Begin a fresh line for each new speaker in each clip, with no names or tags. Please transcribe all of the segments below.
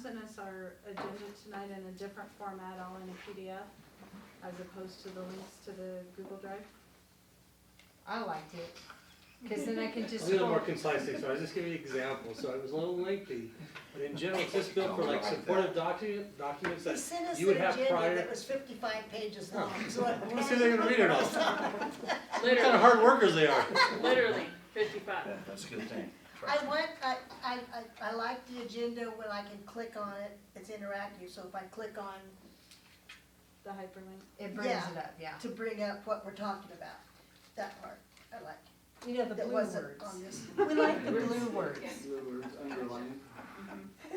sent us Um, our agenda tonight in a different format, all in a PDF, as opposed to the links to the Google Drive.
I liked it, cause then I can
A
just
little
scroll.
more concise, so I was just giving you examples, so it was a little lengthy. But in general, it's just built for like supportive document, documents
He
that,
sent us
You
an
would have prior-
agenda that was fifty-five pages long, so. I-
let's see if they're gonna read it all. What kind of
Literally,
hard workers they are.
literally, fifty-five.
Yeah, that's a good thing.
I want, I, I, I, I like the agenda when I can click on it, it's interactive, so if I click on
The hyperlink.
It brings it
Yeah.
up, yeah.
to bring up what we're talking about, that part, I like.
You know, the
That
blue
wasn't
words.
on this.
We like the blue words.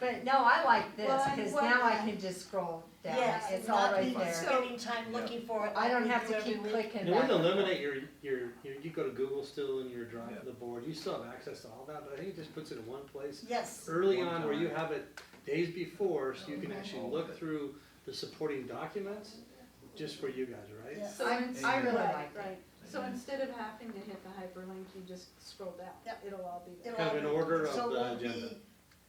But no, I like this,
Well, I-
cause
well,
now I
yeah.
can just scroll down,
Yes,
it's
it's
all
not
right
me
there.
spending time looking for it.
I don't
like we do
have to
every
keep
week.
clicking
You wouldn't
back.
eliminate your, your, your, you go to Google still in your
Yeah.
drive, the board, you still have access to all that, but I think it just puts it in one place.
Yes,
Early
One
on where you
time.
have it days before, so you can
Mhm.
actually
All of
look
it.
through the supporting documents, just for you guys, right?
yes,
So
I'm-
ins-
I really
right,
liked it.
Right, so instead of having to hit the hyperlink, you just scroll down.
Yep.
It'll all be there.
It'll
Kind of
all
an
be-
order of
so
the
we'll be- Oh,
agenda.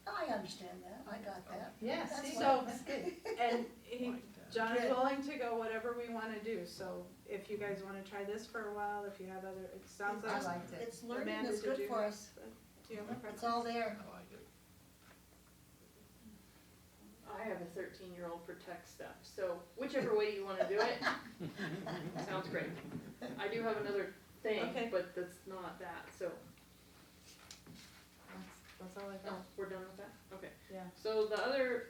I understand that, I got that.
Yeah,
That's
see,
why-
that's good.
And he, John is
Good.
willing to go whatever we wanna do, so if you guys wanna try this for a while, if you have other, it sounds
I
like.
liked it.
It's learning,
Amanda,
it's
did
good
you
for
have-
us,
Do you have a preference?
it's all there.
I have a thirteen-year-old for tech stuff, so whichever way you wanna do it, sounds great. I do have another thing,
Okay.
but that's not that, so,
That's- That's all I
oh,
got.
we're done with that? Okay.
Yeah.
So the other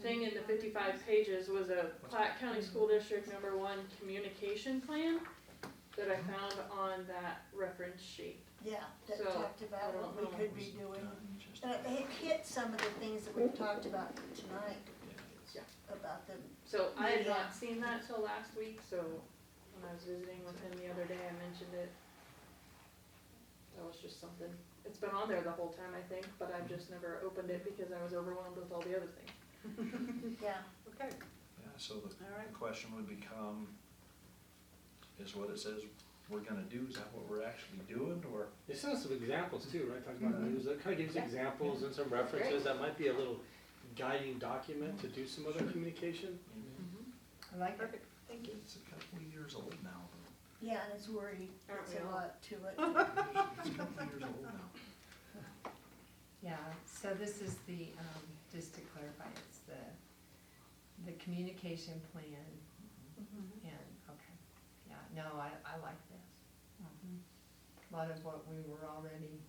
thing in the fifty-five pages was a Platte County School District Number One Communication Plan that I found on that reference sheet.
Yeah, that
So,
talked about what we could be doing. And it it hit some of the things that we've talked about tonight, about the,
So I had
Yeah.
not seen that till last week, so when I was visiting with him the other day, I mentioned it. That was just something, it's been on there the whole time, I think, but I've just never opened it because I was overwhelmed with all the other things.
yeah,
Okay,
Yeah, so the
all right.
the question would become, is what it says we're gonna do, is that what we're actually doing, or?
They sent us some examples too, right, talking about news, that kind of gives
Yeah.
examples and some references, that might be a little guiding document to do some other communication.
I like it.
Perfect, thank you.
It's a couple of years old now,
yeah, and it's worried,
Aren't
it's
we
a
all?
lot to it.
it's a couple of years old now.
Yeah, so this is the, um, just to clarify, it's the, the communication plan
Mhm.
and, okay. Yeah, no, I, I like this. Mhm. A lot of what we were already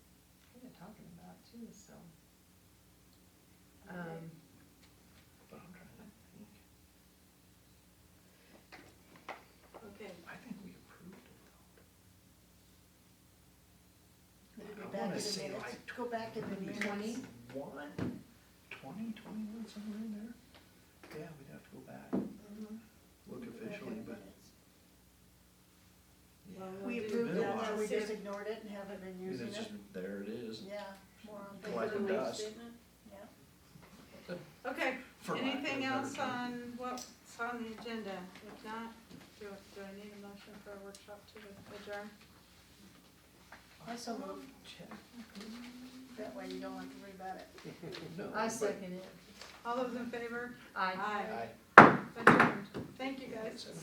kinda talking about too, so. Um,
But I'm trying to think,
Okay,
I think we approved it
It'll be
I
back in
wanna
the
say
minutes.
like
Go back in the minutes.
20?
though. One, twenty, twenty-one, somewhere in there? Yeah, we'd have to go back,
Mhm.
look
Go back in
officially,
the
but.
minutes.
yeah.
Well, we'll
We
do
approved
that.
it, now we
See if-
just ignored it and haven't been
And
using
it's just,
it,
there it is,
yeah, more on
For the
Like
paper,
a
wage
dust.
statement?
yeah.
okay,
for lack of a
anything
better
else
term.
on what's on the agenda? If not, do, do I need a motion for a workshop to adjourn?
I so moved,
Check.
that way you don't have to worry about it.
No,
I
but-
second it.
All those in favor?
I.
Aye.
Aye.
Adjourned. Thank you guys.
Seven